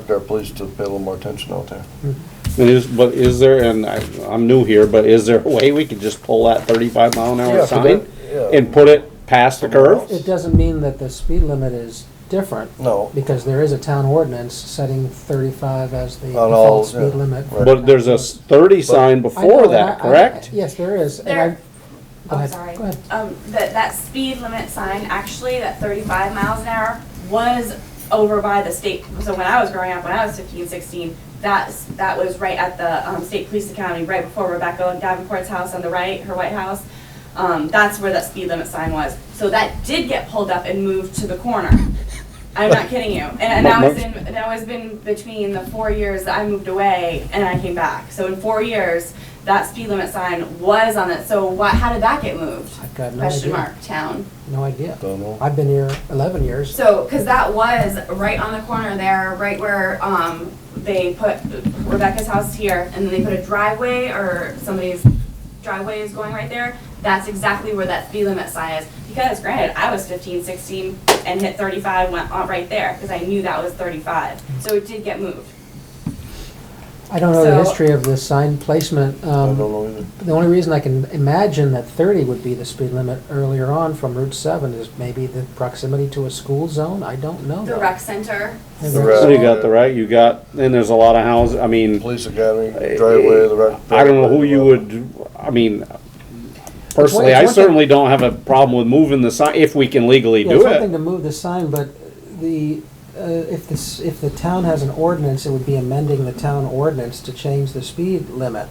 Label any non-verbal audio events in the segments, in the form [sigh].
expect our police to pay a little more attention out there. Is, but is there, and I, I'm new here, but is there a way we could just pull that thirty-five mile an Yeah, hour for sign? that, yeah. And put it past the curve? It doesn't mean that the speed limit is different, No, because there is a town ordinance setting thirty-five as the On all, default speed yeah, limit. right. But there's a s- thirty sign I know, before and I- that, I- correct? Yes, there is, and There, I, go I'm ahead, sorry. go ahead. Um, that, that speed limit sign, actually, that thirty-five miles an hour was over by the state. So when I was growing up, when I was 15, 16, that's, that was right at the, um, State Police Academy, right before Rebecca Davenport's house on the right, her White House. Um, that's where that speed limit sign was. So that did get pulled up and moved to the corner. I'm not kidding you. And, and that was in, that was been between the four years that I moved away and I came back. So in four years, that speed limit sign was on it. So what, how did that get moved? I've got no Question idea, mark, town. no idea. don't know. I've been here eleven years. So, cause that was right on the corner there, right where, um, they put Rebecca's house here and then they put a driveway or somebody's driveway is going right there. That's exactly where that speed limit sign is. Because granted, I was 15, 16, and hit thirty-five, went on right there, cause I knew that was thirty-five. So it did get moved. I don't know the so- history of this sign placement. I um, don't know either. The only reason I can imagine that 30 would be the speed limit earlier on from Route 7 is maybe the proximity to a school zone, I don't know. The rec center, And The that's- So you got the right, you got, and there's a lot of houses, I mean, Police academy, driveway, the rec. I don't know who you would, I mean, personally, it's I one thing- certainly don't have a problem with moving the sign, if we can legally Yeah, it's do one thing to it. move the sign, but the, uh, if this, if the town has an ordinance, it would be amending the town ordinance to change the speed limit.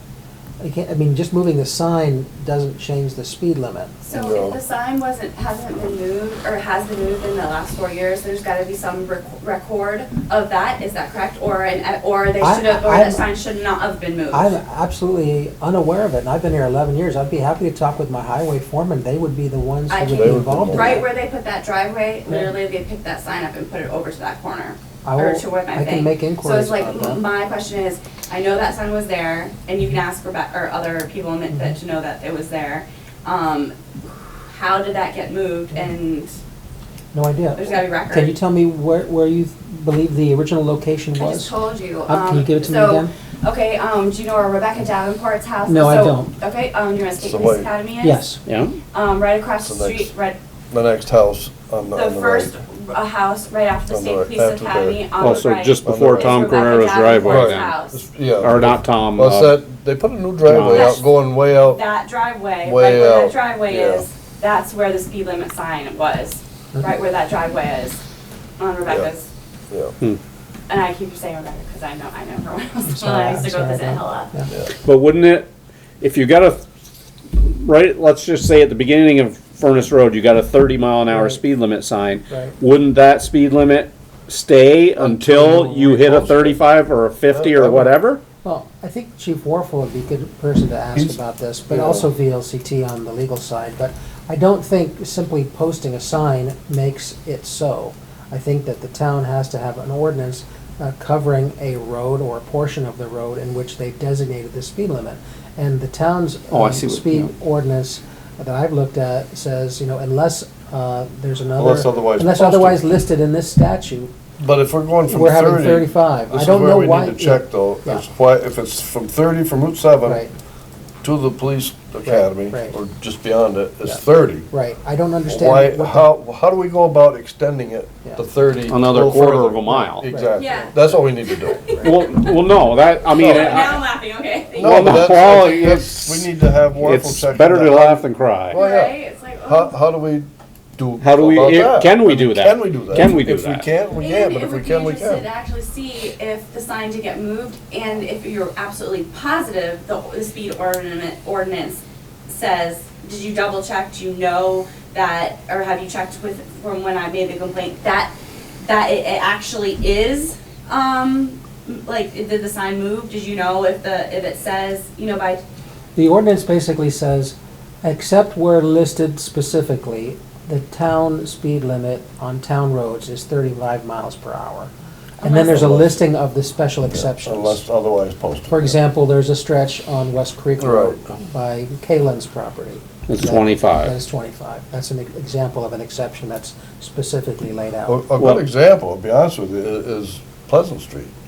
I can't, I mean, just moving the sign doesn't change the speed limit. So No. if the sign wasn't, hasn't been moved, or has been moved in the last four years, there's gotta be some rec- record of that, is that correct? Or, an uh, or they I- should have, or I'm- that sign should not have been moved. I'm absolutely unaware of it, and I've been here 11 years. I'd be happy to talk with my highway foreman. They would be the ones I who would can- be involved in that. Right where they put that driveway, literally they picked that sign up and put it over to that corner. I or will- to where my I can thing. make inquiries So it's about like, that. m- my question is, I know that sign was there, and you can ask Rebecca, or other people in Mm-hmm. Midfit to know that it was there. Um, how did that get moved, and No idea. there's gotta be record. Can you tell me where, where you believe the original location I just was? told you. Uh, can you um, give it to me so- again? Okay, um, do you know where Rebecca Davenport's house? No, I so- don't. Okay, um, you know where State So Police wait. Academy is? Yes, Yeah, Um, right across the So that's street, right, The next house on the, the on the right. first uh, house right after the On the right, State Police after the- Academy on the right. oh, so just On the before right. Oh, Tom It's Rebecca Carrera's driveway Davenport's then, house. Yeah. Oh, or not Tom, Well, uh, it's that, they put a new driveway out, going way out. That driveway, right Way where out, that driveway yeah. is, that's where the speed limit sign was, right where that driveway is on Rebecca's. Yeah, And I keep saying Rebecca because I know, I know her when I was little, sorry, I used to I'm sorry go visit about- Hilla. yeah. yeah. But wouldn't it, if you got a, right, let's just say at the beginning of Furnace Road, you got a thirty mile an hour Right. speed limit sign. Right. Oh, Wouldn't that speed limit stay until you hit a thirty-five or a fifty Yeah, I or would. whatever? Well, I think Chief Warfel would be a good person to ask He's- about this, but yeah. also VLCT on the legal side. But I don't think simply posting a sign makes it so. I think that the town has to have an ordinance uh, covering a road or a portion of the road in which they've designated the speed limit. And the town's Oh, I um, see what- speed yeah. ordinance that I've looked at says, you know, unless uh, there's another. Unless otherwise unless posted. otherwise listed in this statute, But if we're going from We're having thirty. 35. I This is don't know where we why- need to check though, Yeah. is why, if it's from thirty, from Route seven right, to the police academy, right. or just beyond it, Yeah. it's thirty. right. I don't understand. Why, what the- how, how do we go about extending it Yeah. to thirty? Another go quarter further? of a mile. Exactly. Yeah. That's what we need to [laughs] do. Well, well, no, that, I mean, No. Oh, Now I'm I- laughing, okay, thank No, Well, you. but that's, well, I think that's, it's- we need to have Warfel it's check. better that. to laugh than cry. Well, yeah. Right, it's like, How, oh. how do we do? How do we- about if- that? can we do that? Can we do that? Can we do If that? we can't, we can, And but it if we would be can, we interested can. to actually see if the sign did get moved, and if you're absolutely positive the, the speed ordinance, ordinance says, did you double check, do you know that, or have you checked with, from when I made the complaint, that, that it, it actually is, um, like, did the sign move, did you know if the, if it says, you know, by The ordinance basically says, except where listed specifically, the town speed limit on town roads is thirty-five miles per hour. And then there's a listing of the special exceptions. Unless otherwise posted. For example, there's a stretch on West Creek Road by Kalen's property. It's that- 25. That is twenty-five. That's an e- example of an exception that's specifically laid A, out. a Well- good example, to be honest with you, i- is Pleasant Street.